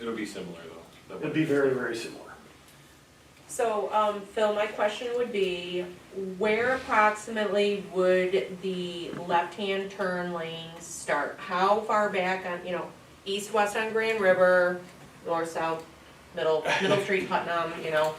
It'll be similar though. It'd be very, very similar. So, um, Phil, my question would be, where approximately would the left-hand turn lane start? How far back on, you know, east-west on Grand River, north-south, middle, Middle Street, Putnam, you know?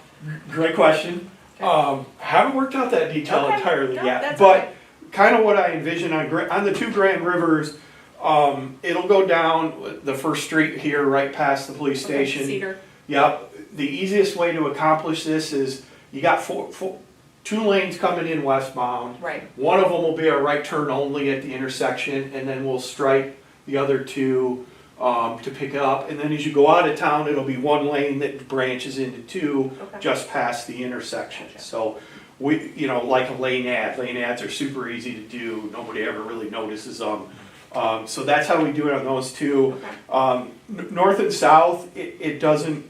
Great question. Um, haven't worked out that detail Okay, entirely no, yet, that's but okay. kind of what I envision on Gra- on the two Grand Rivers, um, it'll go down the first street here, right past the police Okay, station. Cedar, Yep, the easiest way to accomplish this is you got four, four, two lanes coming in westbound. right, One of them will be a right turn only at the intersection, and then we'll stripe the other two um, to pick up. And then as you go out of town, it'll be one lane that branches into two okay, just past the intersection. Gotcha. So we, you know, like a lane ad, lane ads are super easy to do, nobody ever really notices them. Um, So that's how we do it on those two. okay, Um, n- north and south, it, it doesn't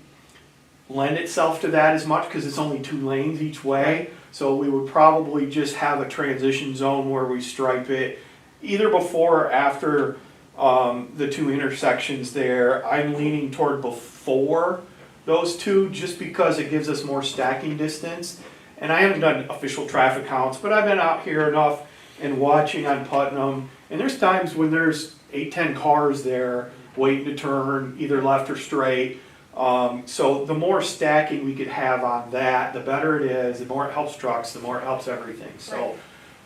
lend itself to that as much because it's only two lanes each way. So we would probably just have a transition zone where we stripe it either before or after um, the two intersections there. I'm leaning toward before those two just because it gives us more stacking distance. And I haven't done official traffic counts, but I've been out here enough and watching on Putnam. And there's times when there's eight, ten cars there waiting to turn either left or straight. Um, so the more stacking we could have on that, the better it is, the more it helps trucks, the more it helps everything. So Right.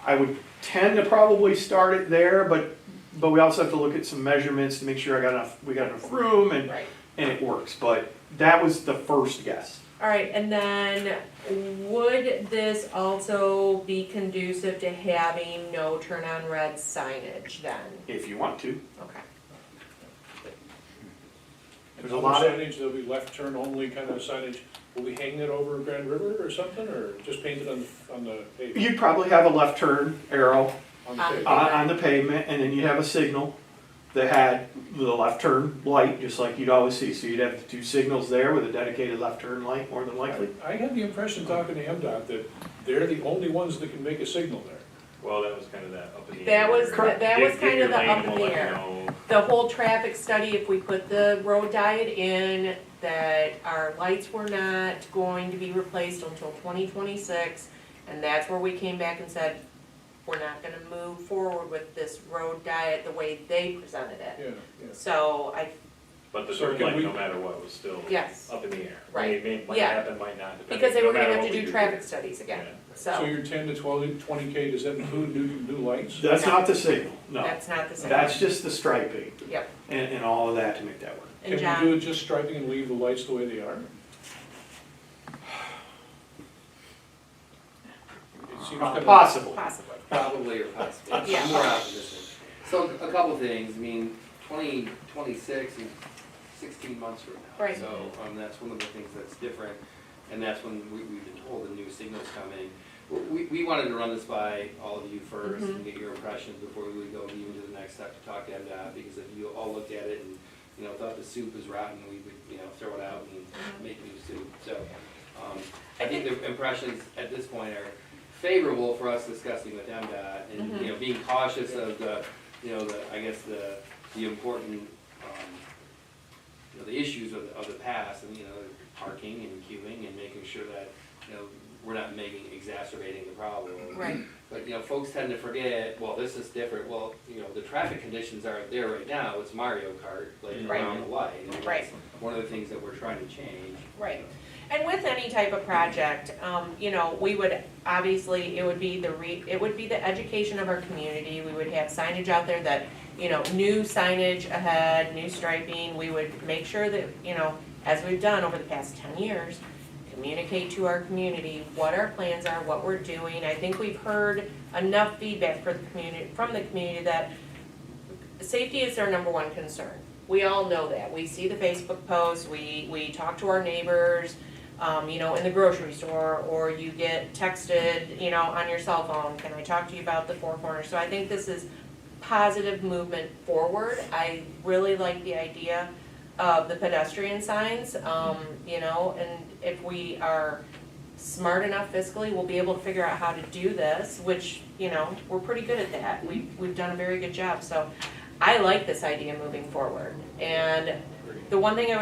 I would tend to probably start it there, but, but we also have to look at some measurements to make sure I got enough, we got enough room and right. and it works. But that was the first guess. All right, and then would this also be conducive to having no turn on red signage then? If you want to, Okay, There's a lot of- Signage, there'll be left turn only kind of signage. Will we hang it over Grand River or something, or just paint it on, the on the pavement? you'd probably have a left turn arrow On the Um, pavement? on, on the pavement, and then you'd have a signal that had the left turn light, just like you'd always see. So you'd have the two signals there with a dedicated left turn light, more than likely. I have the impression, talking to MDOT, that they're the only ones that can make a signal there. Well, that was kind of that up in the air. That was- Correct. that was Dig- dig kind your of the lane up and in we'll the let you air. know. the whole traffic study, if we put the road diet in, that our lights were not going to be replaced until twenty twenty-six, and that's where we came back and said, we're not gonna move forward with this road diet the way they presented it. Yeah, yeah. So I, But the So dirt can light, we- no matter what, was still yes, up in the air. Right. May, may- might Yeah. happen, might not. depending- because they no were gonna matter have what to we do traffic studies again, Yeah. So so your ten to twelve, twenty K, does that include new, new lights? That's not the signal. No, that's not the same. that's just the striping Yep, and, and all of that to make that work. and Can we do John, it just striping and leave the lights the way they are? It seems kind of, Possible. possibly, Probably or possibly. Yeah. More opposition. So a couple of things, I mean, twenty, twenty-six and sixteen months from now. Right. So, um, that's one of the things that's different, and that's when we, we've been told the new signal's coming. We, we wanted to run this by all of you first Mm-hmm. and get your impressions before we would go even to the next step to talk to MDOT, because if you all looked at it and, you know, thought the soup was rotten, we would, you know, throw it out and make new soup, so. um, I think the impressions at this point are favorable for us discussing with MDOT and, you know, being cautious of the, you know, the, I guess the, the important, um, you know, the issues of, of the past and, you know, parking and queuing and making sure that, you know, we're not making, exacerbating the problem. right, But, you know, folks tend to forget, well, this is different, well, you know, the traffic conditions aren't there right now, it's Mario Kart, like Right. around the light. and that's Right. One of the things that we're trying to change. right. And with any type of project, um, you know, we would, obviously, it would be the re, it would be the education of our community. We would have signage out there that, you know, new signage ahead, new striping. We would make sure that, you know, as we've done over the past ten years, communicate to our community what our plans are, what we're doing. I think we've heard enough feedback for the community, from the community that safety is their number one concern. We all know that. We see the Facebook posts, we, we talk to our neighbors, um, you know, in the grocery store, or you get texted, you know, on your cell phone, can I talk to you about the Four Corners? So I think this is positive movement forward. I really like the idea of the pedestrian signs, um, you know, and if we are smart enough fiscally, we'll be able to figure out how to do this, which, you know, we're pretty good at that. We, we've done a very good job, so I like this idea moving forward. And the one thing I would